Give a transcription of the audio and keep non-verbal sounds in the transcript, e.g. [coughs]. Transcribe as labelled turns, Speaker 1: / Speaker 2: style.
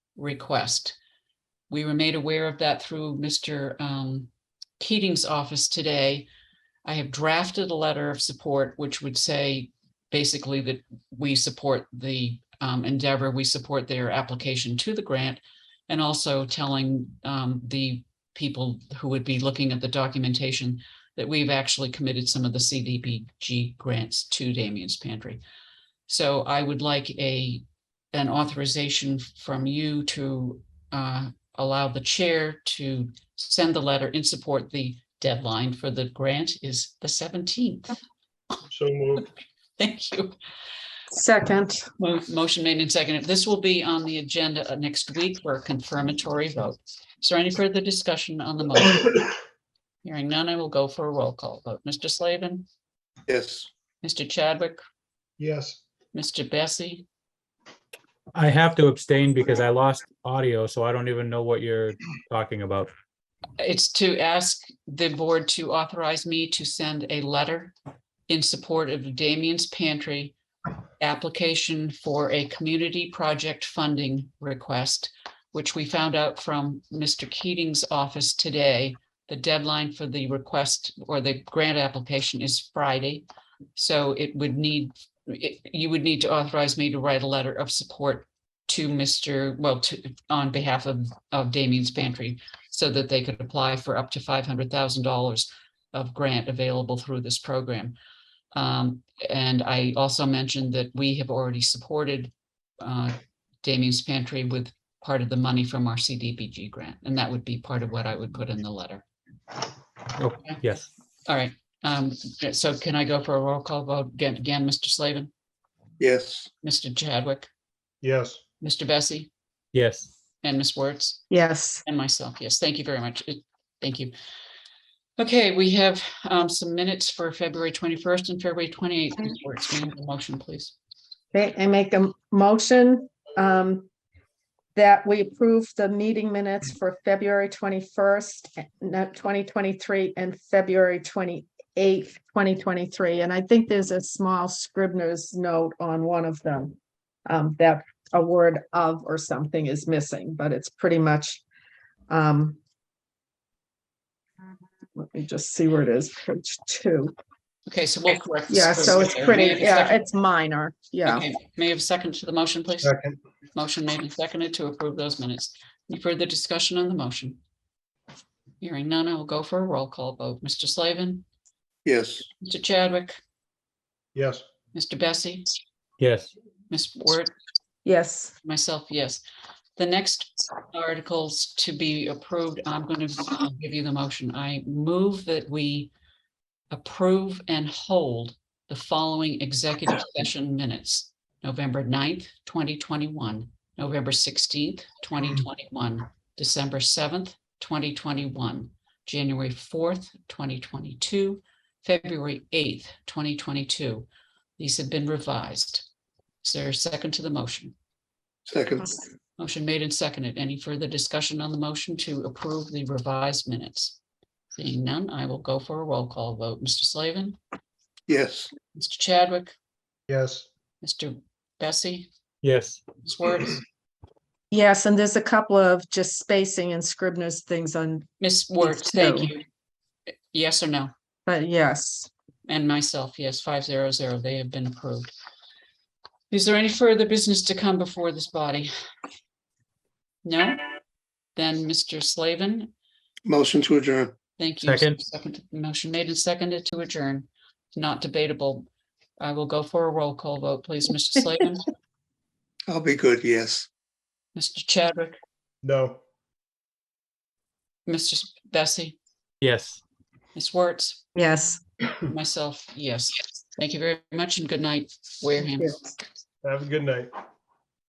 Speaker 1: request. We were made aware of that through Mr. um, Keating's office today. I have drafted a letter of support, which would say basically that we support the um, endeavor, we support their application to the grant, and also telling um, the people who would be looking at the documentation that we've actually committed some of the CDBG grants to Damien's Pantry. So I would like a, an authorization from you to uh, allow the chair to send the letter in support. The deadline for the grant is the 17th.
Speaker 2: So moved.
Speaker 1: [laughs] Thank you.
Speaker 3: Second,
Speaker 1: Mo- Motion made and seconded. This will be on the agenda uh, next week for a confirmatory vote. Is there any further discussion on the
Speaker 2: [coughs]
Speaker 1: motion? Hearing none, I will go for a roll call vote. Mr. Slavin,
Speaker 4: Yes.
Speaker 1: Mr. Chadwick,
Speaker 2: [coughs] Yes,
Speaker 1: Mr. Bessie,
Speaker 5: I have to abstain because I lost audio, so I don't even know what you're talking about.
Speaker 1: It's to ask the board to authorize me to send a letter in support of Damien's Pantry application for a community project funding request, which we found out from Mr. Keating's office today. The deadline for the request or the grant application is Friday. So it would need, it- you would need to authorize me to write a letter of support to Mr., well, to, on behalf of, of Damien's Pantry so that they could apply for up to five hundred thousand dollars of grant available through this program. Um, and I also mentioned that we have already supported uh, Damien's Pantry with part of the money from our CDBG grant, and that would be part of what I would put in the letter.
Speaker 5: Oh, yes.
Speaker 1: All right, um, so can I go for a roll call vote again, again, Mr. Slavin,
Speaker 4: Yes.
Speaker 1: Mr. Chadwick,
Speaker 2: yes.
Speaker 1: Mr. Bessie,
Speaker 5: Yes.
Speaker 1: and Ms. Wertz?
Speaker 3: yes,
Speaker 1: And myself, yes, thank you very much. It- Thank you. Okay, we have um, some minutes for February 21st and February 28th. Ms. Wertz, may I have a Motion, please.
Speaker 3: Okay, I make a motion um, that we approve the meeting minutes for February twenty-first, not twenty twenty-three, and February twenty-eighth, twenty twenty-three, and I think there's a small scribner's note on one of them um, that a word of or something is missing, but it's pretty much um, let me just see where it is, page two.
Speaker 1: Okay, so we'll correct. this
Speaker 3: Yeah,
Speaker 1: first.
Speaker 3: so it's
Speaker 1: Okay, may I have
Speaker 3: pretty,
Speaker 1: a
Speaker 3: yeah,
Speaker 1: second?
Speaker 3: it's minor, yeah.
Speaker 1: Okay, May I have a second to the motion, please?
Speaker 2: Second,
Speaker 1: Motion made and seconded to approve those minutes. Any further discussion on the motion? Hearing none, I will go for a roll call vote. Mr. Slavin,
Speaker 4: Yes.
Speaker 1: Mr. Chadwick,
Speaker 2: yes.
Speaker 1: Mr. Bessie,
Speaker 5: Yes.
Speaker 1: Ms. Wertz,
Speaker 3: Yes,
Speaker 1: Myself, yes. The next articles to be approved, I'm going to give you the motion. I move that we approve and hold the following executive session minutes. November 9th, twenty twenty-one, November sixteenth, twenty twenty-one, December seventh, twenty twenty-one, January fourth, twenty twenty-two, February eighth, twenty twenty-two. These have been revised. Is there a second to the motion?
Speaker 4: Second.
Speaker 1: Motion made and seconded. Any further discussion on the motion to approve the revised minutes? Seeing none, I will go for a roll call vote. Mr. Slavin,
Speaker 4: Yes.
Speaker 1: Mr. Chadwick,
Speaker 2: Yes,
Speaker 1: Mr. Bessie,
Speaker 5: Yes.
Speaker 1: Ms. Wertz,
Speaker 3: yes, and there's a couple of just spacing and Scribner's things on,
Speaker 1: Ms. Wertz, thank
Speaker 3: too.
Speaker 1: you. Yes or no?
Speaker 3: but yes.
Speaker 1: And myself, yes, five zero zero. They have been approved. Is there any further business to come before this body? No? Then, Mr. Slavin,
Speaker 4: Motion to adjourn.
Speaker 1: Thank you.
Speaker 5: Second.
Speaker 1: Motion made and seconded to adjourn. Not debatable. I will go for a roll call vote, please. Mr. Slavin,
Speaker 4: I'll be good. Yes.
Speaker 1: Mr. Chadwick,
Speaker 2: no.
Speaker 1: Mr. Bessie,
Speaker 5: Yes.
Speaker 1: Ms. Wertz,
Speaker 3: Yes.
Speaker 1: myself, yes. Thank you very much and good night, Wareham.
Speaker 3: yes.
Speaker 2: Have a good night.